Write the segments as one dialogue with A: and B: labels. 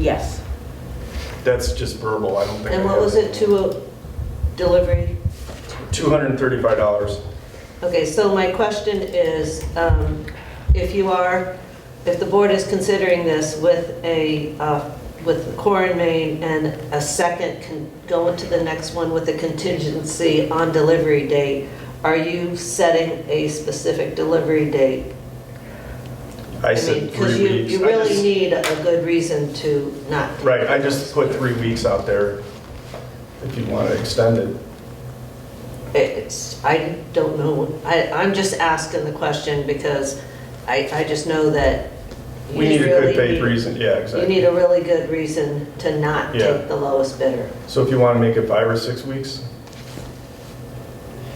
A: Yes.
B: That's just verbal, I don't think.
A: And
B: I
A: what
B: have
A: was it, two, uh, delivery?
B: $235.
A: Okay, so my question is, um, if you are, if the board is considering this with a, uh, with the core in Maine and a second can go into the next one with a contingency on delivery date, are you setting a specific delivery date?
B: I
A: mean,
B: said three
A: Because
B: weeks.
A: you, you
B: I
A: really
B: just-
A: need a good reason to not. do
B: Right, I
A: this.
B: just put three weeks out there if you want to extend it.
A: It's, I don't know, I, I'm just asking the question because I, I just know that. you
B: We need a
A: really
B: good faith
A: need-
B: reason, yeah,
A: You need
B: exactly.
A: a really good reason to not
B: Yeah.
A: take the lowest bidder.
B: So if you want to make it five or six weeks,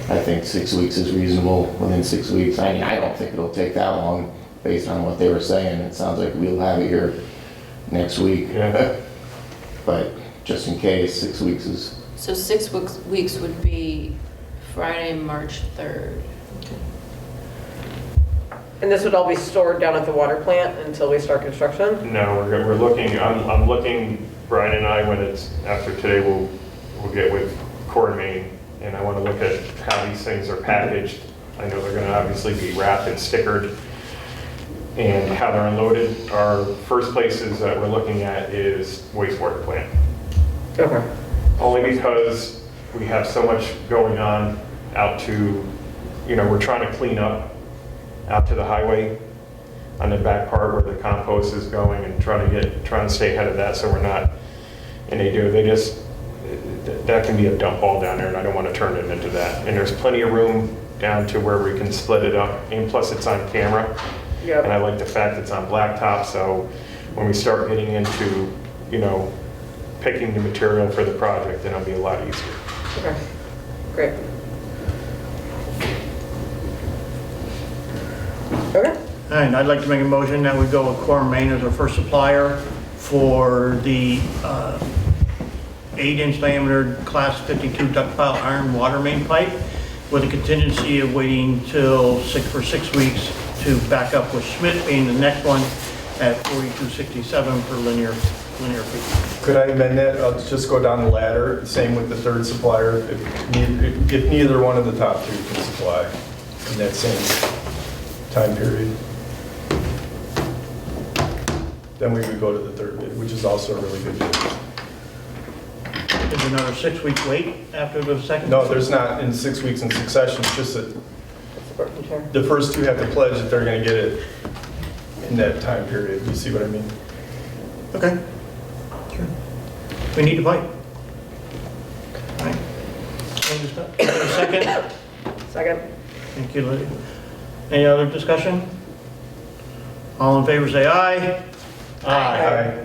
C: I think six weeks is reasonable, within six weeks. I mean, I don't think it'll take that long, based on what they were saying. It sounds like we'll have it here next week.
B: Yeah.
C: But just in case, six weeks is,
D: So six weeks, weeks would be Friday, March 3rd.
E: And this would all be stored down at the water plant until we start construction?
F: No, we're, go- we're looking, I'm, I'm looking, Brian and I, when it's, after today, we'll, we'll get with Core Main, and I want to look at how these things are packaged. I know they're going to obviously be wrapped and stickered, and how they're unloaded. Our first places that we're looking at is wastewater plant,
E: Okay.
F: only because we have so much going on out to, you know, we're trying to clean up out to the highway on the back part where the compost is going and trying to get, trying to stay ahead of that so we're not, and they do, they just, that can be a dump all down there and I don't want to turn it into that. And there's plenty of room down to where we can split it up and plus it's on camera.
E: Yep.
F: And I like the fact it's on blacktop, so when we start getting into, you know, picking the material for the project, then it'll be a lot easier.
E: Okay, great. Okay,
G: And I'd like to make a motion that we go with Core Main as our first supplier for the uh, eight-inch diameter class 52 ductile iron water main pipe with a contingency of waiting till six, for six weeks to back up with Schmidt being the next one at 4267 per linear, linear feet.
B: could I amend that? I'll just go down the ladder, same with the third supplier. If ne- If neither one of the top two can supply in that same time period, then we would go to the third bid, which is also a really good bid.
G: Is another six-week wait after the second?
B: No, there's not in six weeks in succession, it's just that
E: that's a Burton chair.
B: the first two have to pledge that they're going to get it in that time period. You see what I mean?
G: Okay. Sure. We need a pipe. All right. Any discuss- any Second?
E: Second?
G: Thank you, Lydia. Any other discussion? All in favor, say aye.
B: Aye.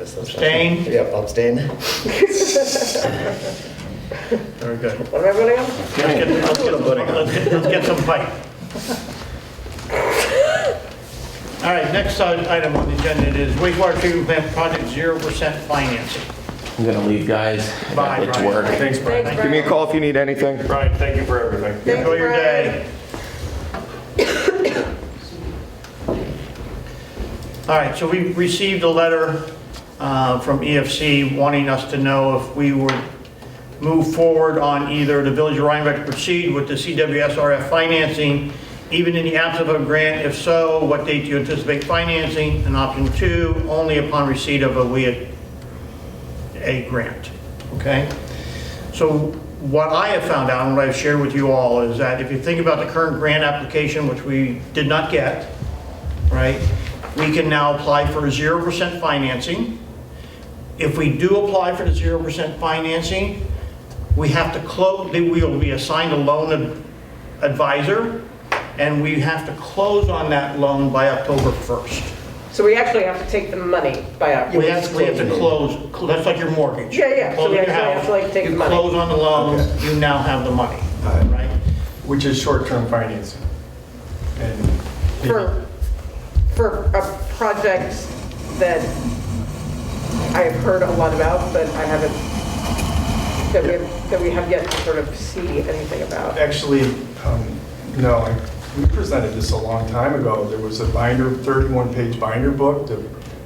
G: Abstain?
H: Yep, abstain.
G: Very good.
E: What am I voting on?
G: Let's get, let's get, let's get- let's get some pipe. All right, next uh, item on the agenda is wastewater treatment plant project 0% financing.
C: I'm gonna leave, guys. I gotta
G: Bye,
C: get to
G: Brian.
C: work.
B: Thanks, Brian.
E: Thanks,
C: Give me a
E: Brian.
C: call if you need anything.
F: Brian, thank you for everything.
G: Enjoy your day. All right, so we received a letter uh, from EFC wanting us to know if we would move forward on either the Village of Rhinebeck proceed with the CWSRF financing, even in the absence of a grant, if so, what date do you anticipate financing? And option two, only upon receipt of a WIA, a grant, okay? So what I have found out and what I've shared with you all is that if you think about the current grant application, which we did not get, right? We can now apply for 0% financing. If we do apply for the 0% financing, we have to close, we will be assigned a loan ad- advisor, and we have to close on that loan by October 1st.
E: So we actually have to take the money by our,
G: We have, we have to close, cl- that's like your mortgage.
E: Yeah, yeah, so
G: Close
E: we
G: on your
E: actually have
G: house,
E: to, like, take the money.
G: You close on the loan, you now have the money, right?
B: Which is short-term financing. And
E: for, for a project that I've heard a lot about, but I haven't, that we, that we have yet to sort of see anything about.
B: actually, um, no, I- we presented this a long time ago. There was a binder, 31-page binder book that